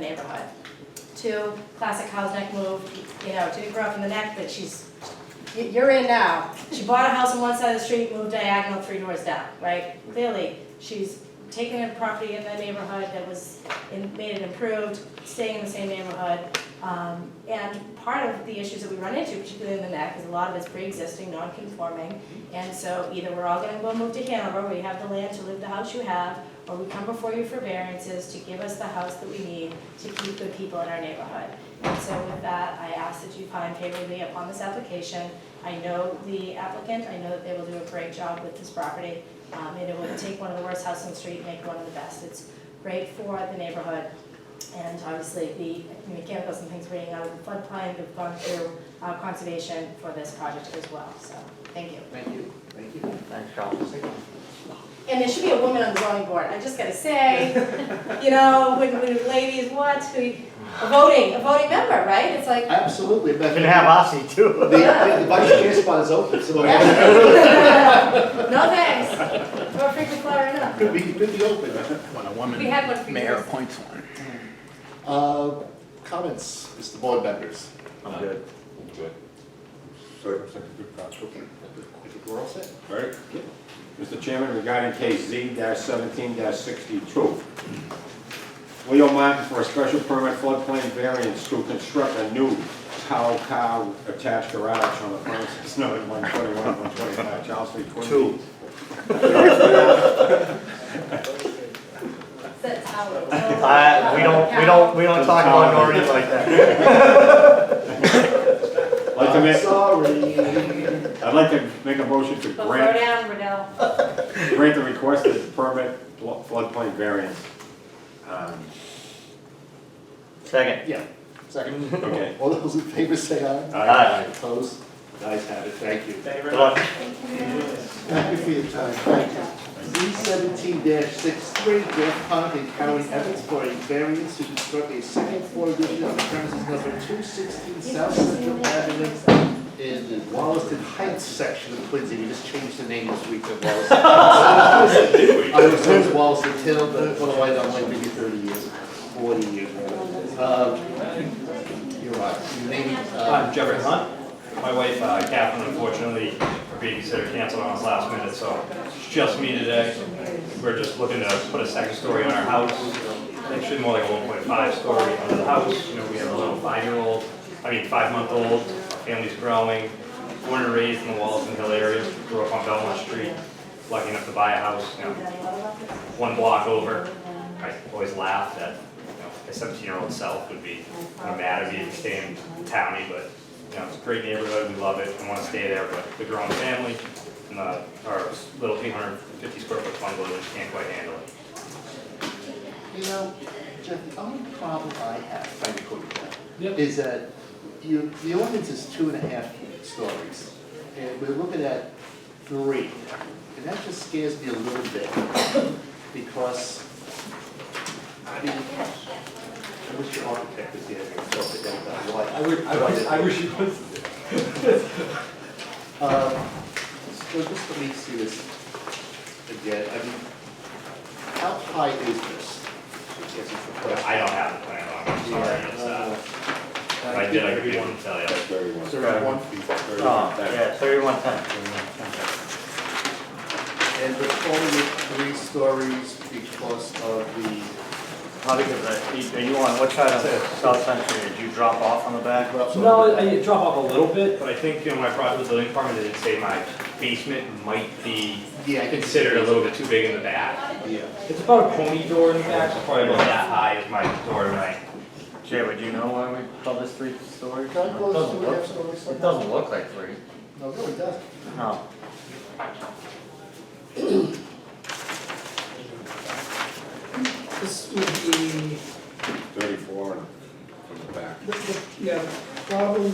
profit. Two, classic cow's neck move, you know, didn't grow up in the neck, but she's, y- you're in now. She bought a house on one side of the street, moved diagonal three doors down, right? Clearly, she's taken a property in the neighborhood that was, and made it improved, staying in the same neighborhood. Um, and part of the issues that we run into, particularly in the neck, is a lot of it's pre-existing, non-conforming. And so either we're all gonna go move to Hanover, where you have the land to live the house you have, or we come before you for variances to give us the house that we need to keep good people in our neighborhood. And so with that, I ask that you find favorably upon this application. I know the applicant, I know that they will do a great job with this property. Um, and it will take one of the worst houses on the street and make one of the best. It's great for the neighborhood. And obviously, the mechanicals and things reading out of the floodplain, we've gone through uh, conservation for this project as well, so, thank you. Thank you, thank you. Thanks, Council. And there should be a woman on the zoning board, I just gotta say, you know, when, when ladies, what, who, a voting, a voting member, right? It's like, Absolutely, but You can have Ossie the, too. the vice chair spot is open, so no thanks, we're a frequent flyer enough. could be, could be open. When a We woman had one for you. mayor appoints one. Uh, Comments, Mr. Board members? I'm good. Good. Sorry, for a second, good catch. Okay. I think we're all set. All right. Mr. Chairman, regarding case Z seventeen sixty-two. Leo Martin for a special permit floodplain variance to construct a new cow cow attached garage on the premises number one twenty-one, one twenty-five, Charles Street, Quincy. Two. That's how it- I, Uh, we don't, we don't, we don't talk about Noreen like that. Like to I'm make, Sorry. I'd like to make a motion to But throw grant, down, Riddell. grant the requested permit flo- floodplain variance. Um, Second. Yeah, second. Okay. All those in favor say aye. Aye. Opposed? Guys have it, thank you. Good luck. Thank you for your time, thank you. Z seventeen 63 Jeff Hunt and Karen Evans for a variance to construct a second floor addition on the premises number two sixteen South Central Avenue in the Wallaston Heights section of Quincy, we just changed the name this week to Wallaston. I was always Wallaston Hill, but it's one of my, like maybe thirty years, forty years. Uh, You're right, your name, uh, I'm Jeffrey Hunt. My wife uh, Catherine unfortunately, her babysitter canceled on us last minute, so it's just me today. We're just looking to put a second story on our house. Actually more like a one point five story on the house. You know, we have a little five-year-old, I mean, five-month-old, family's growing. Born and raised in the Wallaston Hill area, grew up on Belmont Street, lucky enough to buy a house, you know, one block over. I always laugh that, you know, my seventeen-year-old self would be kind of mad at me for staying towny, but, you know, it's a great neighborhood, we love it, we wanna stay there, but the grown family and the, our little eight hundred and fifty square foot bungalow just can't quite handle it. You know, Jeff, the only problem I have, if I may put it that, is that you, the ordinance is two and a half stories, and we're looking at three. And that just scares me a little bit, because, I mean, I wish your architect was here to talk to them about why. I would, I wish, I wish he was. Um, so just let me see this again, I mean, how high is this? I guess it's the But question. I don't have the plan on, I'm sorry, it's, uh, if I did, I could be able to tell you. That's very one. It's around one feet, Oh, yeah, thirty-one ten. and we're calling it three stories because of the. How big is that? Are you on, what side of South Century? Did you drop off on the back? No, I uh, drop off a little bit. But I think, you know, when I brought the building department, they did say my basement might be Yeah, I can see. considered a little bit too big in the back. Yeah. It's about a pony door in the back, so probably about that high is my door, right? Jay, would you know why we call this three stories? Can I close Doesn't two and a half look- stories? It doesn't look like three. No, it really doesn't. No. This would be, Thirty-four and from the back. the- the- yeah, problem,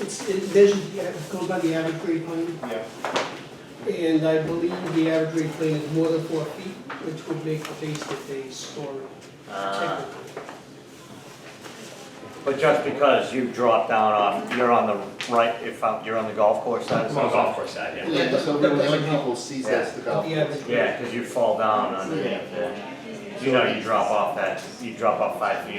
it's, it measures, the av- goes by the average grade plane. Yeah. And I believe the average grade plane is more than four feet, which would make the basement a story. Uh, technically. But just because you dropped down off, you're on the right, if I'm- you're on the golf course side? It's of on the South golf course side, yeah. Yeah, so really the only people sees that's the golf. The average. Century? Yeah, because you fall down underneath there. You know you drop off that, you drop off five feet